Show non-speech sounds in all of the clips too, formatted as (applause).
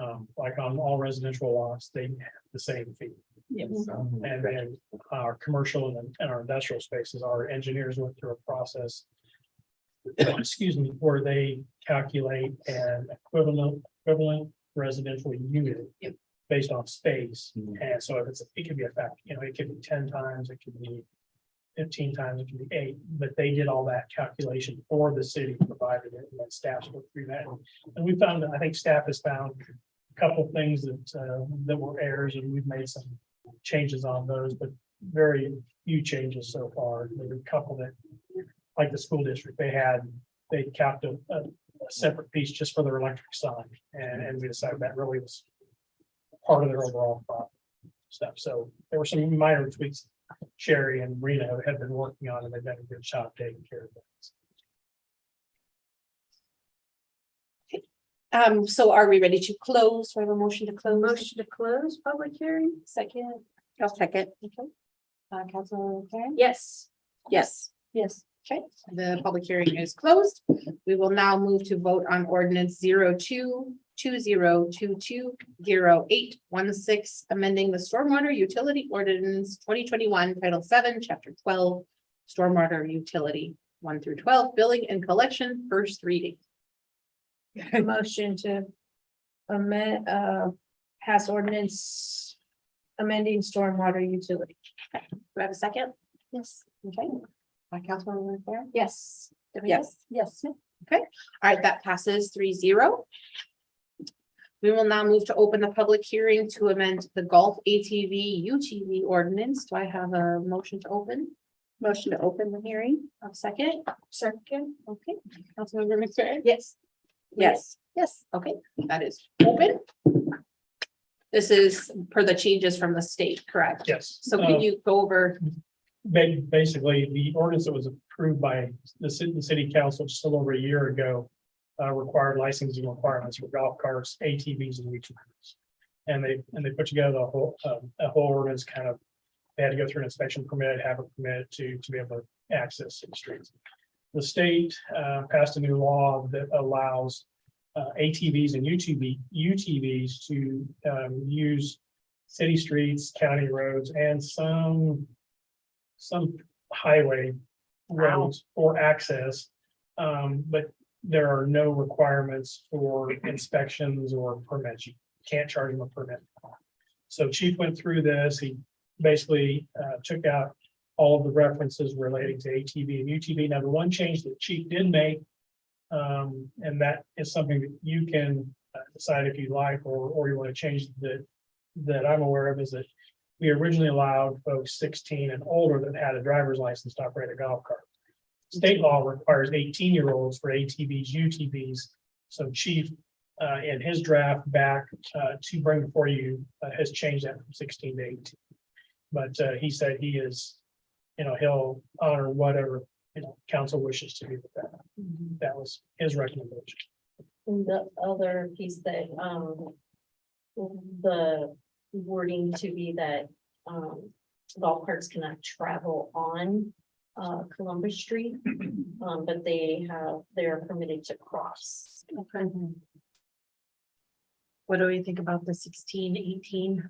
um, like on all residential lots, they have the same fee. Yes. So, Mm-hmm. And then our commercial and and our industrial spaces, our engineers went through a process. (coughs) Excuse me, where they calculate an equivalent, equivalent residential unit. Yep. Based on space, Mhm. and so if it's, it could be a fact, you know, it could be ten times, it could be. Fifteen times, it could be eight, but they did all that calculation for the city, provided it, and then staff looked through that. And we found, I think staff has found a couple things that, uh, that were errors, and we've made some changes on those, but very few changes so far. There's a couple that, like the school district, they had, they capped a, a, a separate piece just for their electric sign, and, and we decided that really was part of their overall pro- stuff. So there were some minor tweaks Sherry and Reno had been working on, and they've done a good job taking care of things. Um, so are we ready to close? Do I have a motion to close? Motion to close public hearing? Second, I'll second. okay. Uh, Council Karen? Yes. Yes. Yes. Okay, the public hearing is closed. We will now move to vote on ordinance zero two two zero two two zero eight one six, amending the stormwater utility ordinance twenty twenty-one, title seven, chapter twelve, stormwater utility, one through twelve, billing and collection, first reading. (laughs) Motion to amend, uh, pass ordinance amending stormwater utility. Do I have a second? Yes. Okay. Uh, Councilwoman Fair? Yes. Yes. Yes. All right, that passes three zero. We will now move to open the public hearing to amend the golf ATV UTV ordinance. Do I have a motion to open? Motion to open the hearing. A second, Second. okay. Councilmember McFerrin? Yes. Yes, yes, okay, that is open. This is per the changes from the state, correct? Yes. So Uh, can you go over ba- basically, the ordinance that was approved by the city, the city council just a little over a year ago. Uh, required licensing requirements for golf carts, ATVs and weech motors. And they, and they put together a whole, um, a whole ordinance kind of. They had to go through an inspection permit, have a permit to, to be able to access city streets. The state, uh, passed a new law that allows. Uh, ATVs and UTV, UTVs to, um, use. City streets, county roads and some some highway roads for access. Um, but there are no requirements for inspections or permits. You can't charge them a permit. So chief went through this. He basically uh, took out all of the references relating to ATV and UTV. Now, the one change that chief did make, um, and that is something that you can uh, decide if you like or, or you want to change that, that I'm aware of is that we originally allowed folks sixteen and older that had a driver's license to operate a golf cart. State law requires eighteen-year-olds for ATVs, UTVs. So Chief, uh, in his draft back, uh, to bring before you, uh, has changed that from sixteen to eighteen. But, uh, he said he is, you know, he'll honor whatever, you know, council wishes to do with that. Mm-hmm. That was his recommendation. And the other piece that, um, the wording to be that, um, golf carts cannot travel on, uh, Columbus Street. Um, but they have, they're permitted to cross. Okay. What do we think about the 16, 18?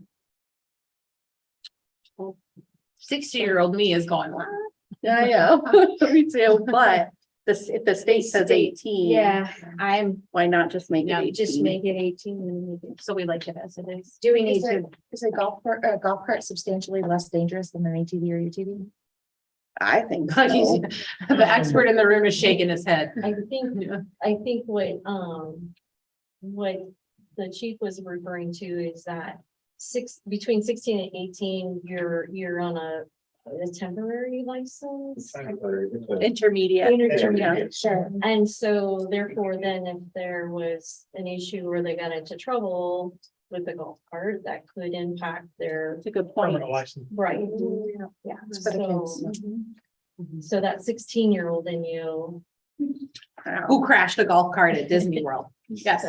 Sixty-year-old me is going, what? (laughs) Yeah, yeah. (laughs) Me too, but this, if the state says eighteen. Yeah, I'm, why not just make it Just 18? make it eighteen and make it. so we like it as it is. Do we Is it- Is a golf cart, a golf cart substantially less dangerous than an ATV or UTV? I (laughs) think so. (laughs) The expert in the room is shaking his head. I think, I think what, um, what the chief was referring to is that six, between sixteen and eighteen, you're, you're on a a temporary license. Intermediate. Intermediate. sure. And so therefore, then if there was an issue where they got into trouble with the golf cart, that could impact their. It's a good point. Permanent license. Right. Yeah. it's for the kids. So, Mm-hmm. so that sixteen year old in you. Who crashed a golf cart at Disney World? Yes.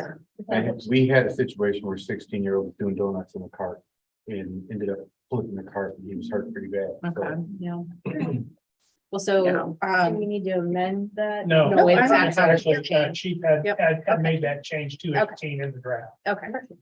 And we had a situation where sixteen year old was doing donuts in a cart and ended up flipping the cart and he was hurt pretty bad. Okay, So yeah. Well, Yeah. so, Do um, we need to amend that? No. No, it's it's actually- actually- uh, Chief had, Yep. had, had made that change to Okay. eighteen in the draft. okay.